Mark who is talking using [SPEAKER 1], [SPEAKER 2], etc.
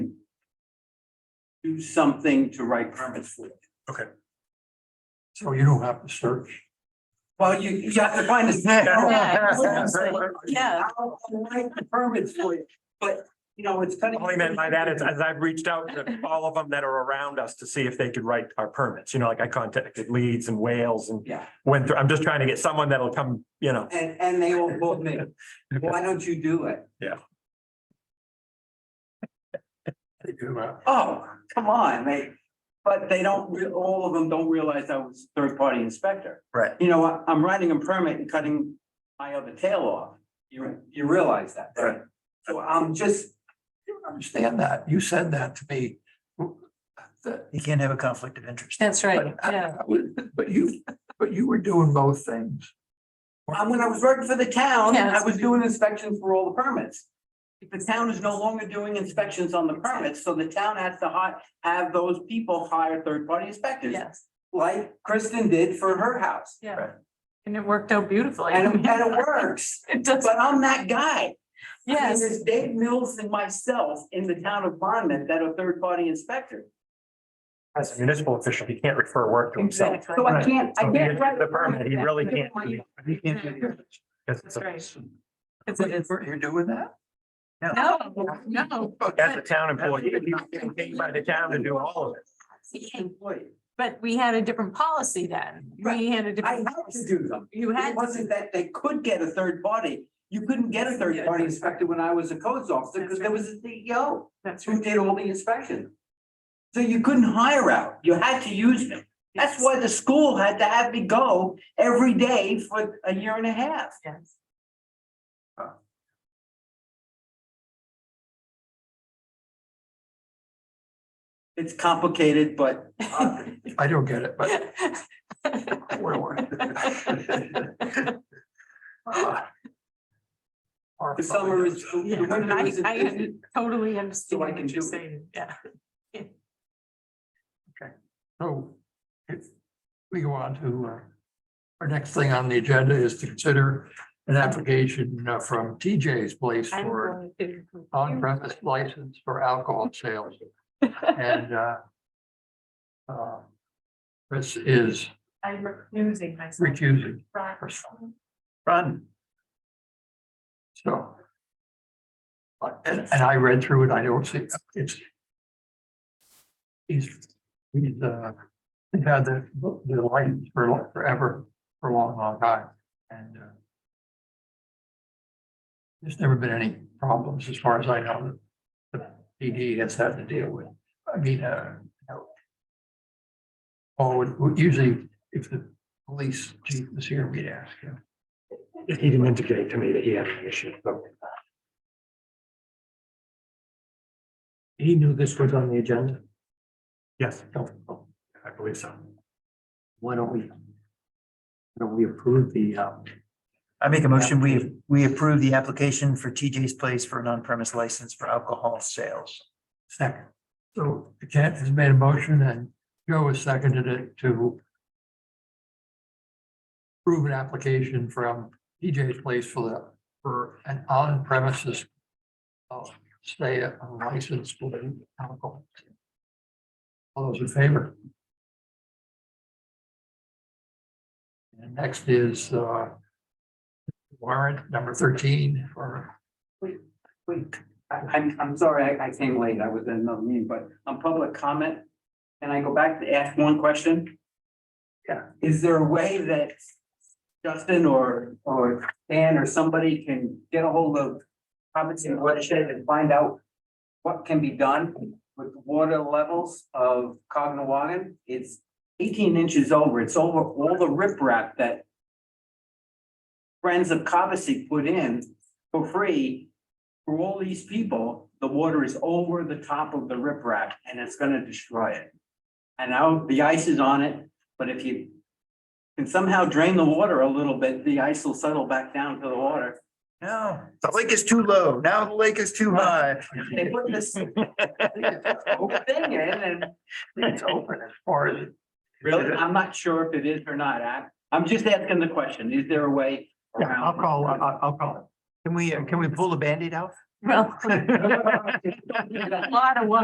[SPEAKER 1] do something to write permits for.
[SPEAKER 2] So you don't have to search.
[SPEAKER 1] Well, you, you have to find a.
[SPEAKER 3] Yeah.
[SPEAKER 1] I'll I'll write the permits for you, but, you know, it's kind of.
[SPEAKER 2] All I meant by that is, as I've reached out to all of them that are around us to see if they could write our permits, you know, like I contacted Leeds and Wales and
[SPEAKER 1] Yeah,
[SPEAKER 2] went through, I'm just trying to get someone that'll come, you know.
[SPEAKER 1] and, and they all told me, why don't you do it?
[SPEAKER 2] They do, uh,
[SPEAKER 1] Oh, come on, they, but they don't, re- all of them don't realize I was third-party inspector.
[SPEAKER 2] Right.
[SPEAKER 1] You know, I- I'm writing a permit and cutting my other tail off. You, you realize that, right? So I'm just,
[SPEAKER 4] You don't understand that. You said that to me. That-
[SPEAKER 5] You can't have a conflict of interest.
[SPEAKER 3] That's right,
[SPEAKER 4] but
[SPEAKER 3] yeah.
[SPEAKER 4] I was- But you, but you were doing both things.
[SPEAKER 1] Um, when I was working for the town, I
[SPEAKER 3] Yes.
[SPEAKER 1] was doing inspections for all the permits. The town is no longer doing inspections on the permits, so the town has to hi- have those people hire third-party inspectors.
[SPEAKER 3] Yes,
[SPEAKER 1] Like Kristen did for her house,
[SPEAKER 3] yeah. And it worked out beautifully.
[SPEAKER 1] and it, and it works,
[SPEAKER 3] It does,
[SPEAKER 1] but I'm that guy. I mean,
[SPEAKER 3] yes.
[SPEAKER 1] There's Dave Mills and myself in the town of Monmouth that are third-party inspectors.
[SPEAKER 2] As a municipal official, he can't refer work to himself.
[SPEAKER 3] Exactly.
[SPEAKER 1] So I can't, I
[SPEAKER 2] So he
[SPEAKER 1] can't.
[SPEAKER 2] gets
[SPEAKER 1] write
[SPEAKER 2] The permit, he really can't. do it,
[SPEAKER 4] You can't do that.
[SPEAKER 2] because it's a-
[SPEAKER 3] That's It's-
[SPEAKER 4] But you
[SPEAKER 3] it's-
[SPEAKER 4] were- You're doing that?
[SPEAKER 3] No, no.
[SPEAKER 2] As a town employee, he's getting paid by the town to do all of it.
[SPEAKER 1] Employee.
[SPEAKER 3] But we had a different policy then. We had a
[SPEAKER 1] I had
[SPEAKER 3] different.
[SPEAKER 1] to
[SPEAKER 3] policy.
[SPEAKER 1] do them.
[SPEAKER 3] You had.
[SPEAKER 1] It wasn't that they could get a third party. You couldn't get a third party inspector when I was a codes officer because there was a CEO
[SPEAKER 3] That's
[SPEAKER 1] who
[SPEAKER 3] right.
[SPEAKER 1] did all the inspection. So you couldn't hire out. You had to use me. That's why the school had to have me go every day for a year and a half.
[SPEAKER 3] Yes.
[SPEAKER 1] It's complicated, but uh,
[SPEAKER 4] I don't get it, but where were?
[SPEAKER 1] the summer is, the
[SPEAKER 3] Yeah,
[SPEAKER 1] winter
[SPEAKER 3] I,
[SPEAKER 1] is.
[SPEAKER 3] I totally
[SPEAKER 1] So
[SPEAKER 3] understand
[SPEAKER 1] I can
[SPEAKER 3] what you're
[SPEAKER 1] do it.
[SPEAKER 3] saying, yeah.
[SPEAKER 4] So if we go on to uh, our next thing on the agenda is to consider an application uh, from TJ's Place
[SPEAKER 3] I'm
[SPEAKER 4] for
[SPEAKER 3] going to-
[SPEAKER 4] on-premise license for alcohol sales. And uh, uh, this is
[SPEAKER 3] I'm losing myself.
[SPEAKER 4] recusing.
[SPEAKER 3] Right.
[SPEAKER 4] Run. So. But, and, and I read through it, I don't see, it's. He's, he's, uh, he's had the, the license for lo- forever, for a long, long time, and, uh. There's never been any problems, as far as I know, that the PD has had to deal with, I mean, uh. you know. Oh, would- would usually, if the police chief was here, we'd ask him.
[SPEAKER 2] He didn't indicate to me that he had an issue, so. He knew this was on the agenda? Yes. I believe so.
[SPEAKER 6] Why don't we? why Don't we approve the, uh,
[SPEAKER 5] I make a motion, we, we approve the application for TJ's Place for an on-premise license for alcohol sales.
[SPEAKER 4] Second. So Kent has made a motion and Joe has seconded it to approve an application from DJ's Place for the, for an on-premises uh, stay a license for alcohol. All those in favor? And next is uh, warrant number thirteen for,
[SPEAKER 1] Wait, I, I'm, I'm sorry, I, I came late, I was in another meeting, but on public comment, can I go back to ask one question? Yeah, is there a way that Justin or, or Dan or somebody can get a hold of Hobson Watershed and find out what can be done with water levels of Cognawagan? It's eighteen inches over, it's over all the riprap that friends of Cobussy put in for free for all these people, the water is over the top of the riprap and it's gonna destroy it. And now the ice is on it, but if you can somehow drain the water a little bit, the ice will settle back down to the water.
[SPEAKER 5] No, the lake is too low. Now the lake is too high.
[SPEAKER 1] They put this thing in and
[SPEAKER 4] it's open as far as it-
[SPEAKER 1] really, I'm not sure if it is or not. I, I'm just asking the question. Is there a way
[SPEAKER 4] Yeah,
[SPEAKER 1] around?
[SPEAKER 4] I'll call, I'll, I'll call.
[SPEAKER 5] Can we, can we pull the Band-Aid out?
[SPEAKER 3] Well, a lot of work.